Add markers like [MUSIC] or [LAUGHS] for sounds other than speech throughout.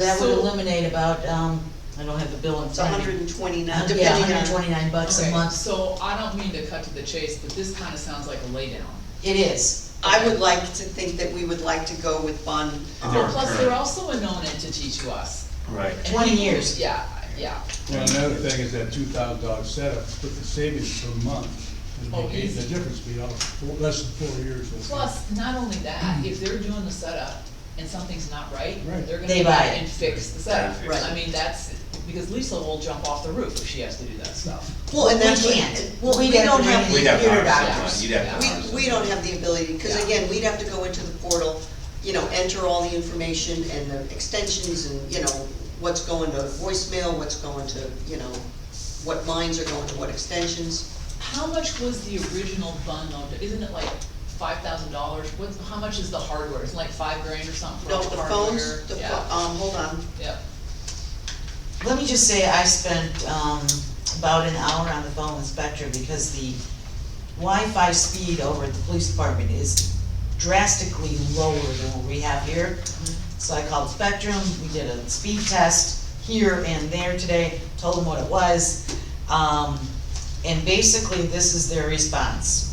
That would So- eliminate about, um, I don't have the bill in It's a front of me. hundred and twenty-nine, Yeah, depending hundred and on, twenty-nine bucks a Okay, month, So I don't mean to cut to the chase, but this kinda sounds like a laydown. it is. I would like to think that we would like to go with bond. And Well, they're plus they're current. also a known entity to us. Right. And 20 people- years. Yeah, yeah. Well, another thing is that two thousand dollar setup, but the savings per month, Oh, would be easy. the difference would be all, four- less than four years. of- Plus, not only Mm-hmm. that, if they're doing the setup and something's not right, Right. they're gonna They go buy and it. fix the setup. Right. Right. I mean, that's, because Lisa will jump off the roof if she has to do that stuff. Well, and We that's what- can't. Well, we We'd have don't to have bring the in- We'd have computer to Yeah. hire doctors. someone, you'd have to hire We, someone. we don't have the ability, because Yeah. again, we'd have to go into the portal, you know, enter all the information and the extensions and, you know, what's going to voicemail, what's going to, you know, what lines are going to what extensions. How much was the original bun loan? Isn't it like five thousand dollars? What's, how much is the hardware? It's like five grand or something for No, all the the hardware? phones, the, pho- Yeah, um, hold on, yeah. Let me just say, I spent, um, about an hour on the phone with Spectra because the Wi-Fi speed over at the police department is drastically lower than what we have here. So I called Spectrum, we did a speed test here and there today, told them what it was. Um, and basically, this is their response.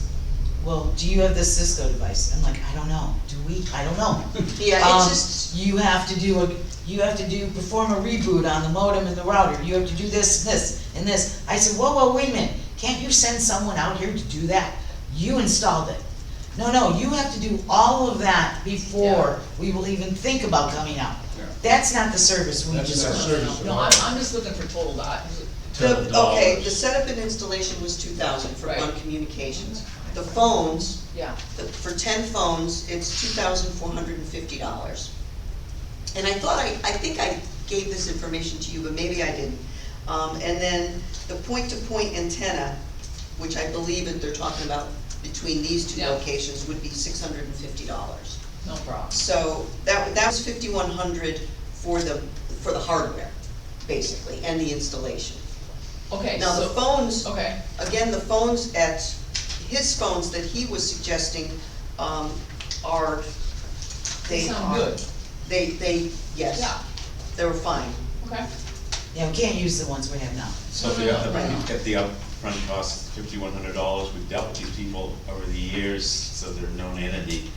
Well, do you have this Cisco device? I'm like, I don't know. Do we? I don't know. yeah, Um, it's just, you have to do a, you have to do, perform a reboot on the modem and the router, you have to do this, this, and this. I said, whoa, whoa, wait a minute, can't you send someone out here to do that? You installed it. No, no, you have to do all of that before we will even think about coming out. Yeah. That's not the service we That's not deserve. service. No, No, I'm, I'm just looking for total dot. the, Total okay, dollars. the setup and installation was two thousand for Right. one communications. The phones, Yeah, the- for ten phones, it's two thousand four hundred and fifty dollars. And I thought I, I think I gave this information to you, but maybe I didn't. Um, and then the point-to-point antenna, which I believe that they're talking about between these two Yeah. locations, would be six hundred and fifty dollars. no problem. So that, that was fifty-one hundred for the, for the hardware, basically, and the installation. Okay, Now, the so, phones, okay, Again, the phones at, his phones that he was suggesting, um, are, they they sound are, good. they, they, yes, Yeah, they were fine. okay. Yeah, we can't use the ones we have now. So if you have the, you get the upfront cost, fifty-one hundred dollars, we've dealt with these people over the years, so they're a known entity.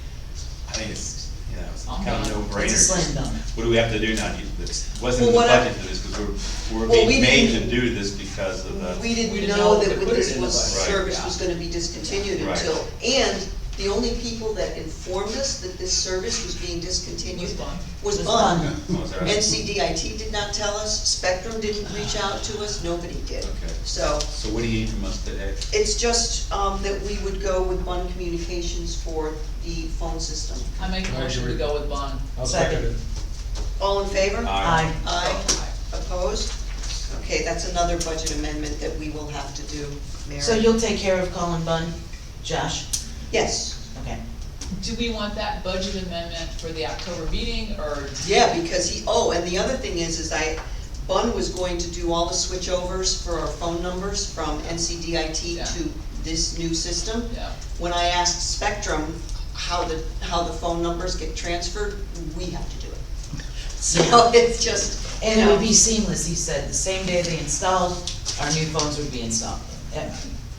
I think it's, you know, it's kind of a no-brainer. It's a slam dunk. What do we have to do now? You- This wasn't in the Well, what I- budget for this, because we're, we're Well, we being made to didn't- do this because of the. We We didn't didn't know know that they put it this in the was, budget. service Right. was gonna be discontinued Right. until, and the only people that informed us that this service was being discontinued Was Bun. was Was Bun. Bun. Oh, is that right? NCDIT did not tell us, Spectrum didn't reach out to us, nobody did. Okay. So, So what do you need from us today? It's just, um, that we would go with Bun Communications for the phone system. I make a motion to go with bond. I'll second it. All in favor? Aye. I, Aye. Opposed? Okay, that's another budget amendment that we will have to do, Mary. so you'll take care of Colin Bun, Josh? Yes, Okay. Do we want that budget amendment for the October meeting, or? yeah, because he, oh, and the other thing is, is I, Bun was going to do all the switchovers for our phone numbers from Yeah. NCDIT to this new system. Yeah, When I asked Spectrum how the, how the phone numbers get transferred, we have to do it. [LAUGHS] So it's just, you And it would know, be seamless, he said, the same day they installed, our new phones would be installed. And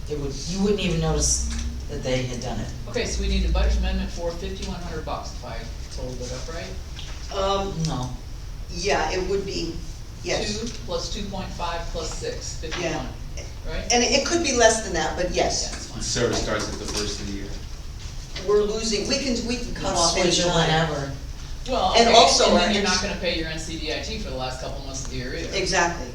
It would, you wouldn't even notice that they had done it. okay, so we need a budget amendment for fifty-one hundred bucks, if I totaled it up right? um, No, yeah, it would be, yes. Two plus two point five plus six, fifty-one, right? And it could be less than that, but Yeah, yes, that's The fine. service starts at the first of the year. we're losing, we can, we can cut off any switch or time. whatever. Well, okay, And also and our then you're not ins- gonna pay your NCDIT for the last couple months of the year either. Exactly,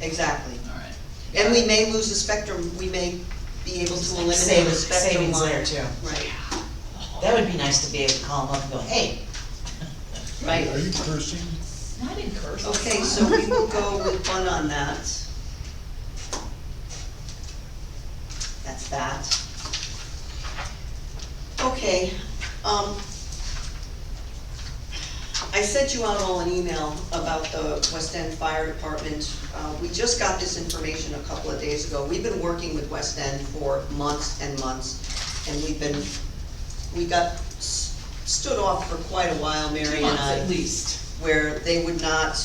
exactly. Alright. And we may lose the spectrum, we may be able to eliminate the Savings, spectrum savings line. there too. Right, Oh, That would be nice to be able to call them up and go, hey, Are right. you cursing? Not in curse. it's Okay, fine. so we will go with one on that. That's that. Okay, um, I sent you out all an email about the West End Fire Department. Uh, we just got this information a couple of days ago. We've been working with West End for months and months, and we've been, we got s- stood off for quite a while, Two Mary and I. months at least. where they would not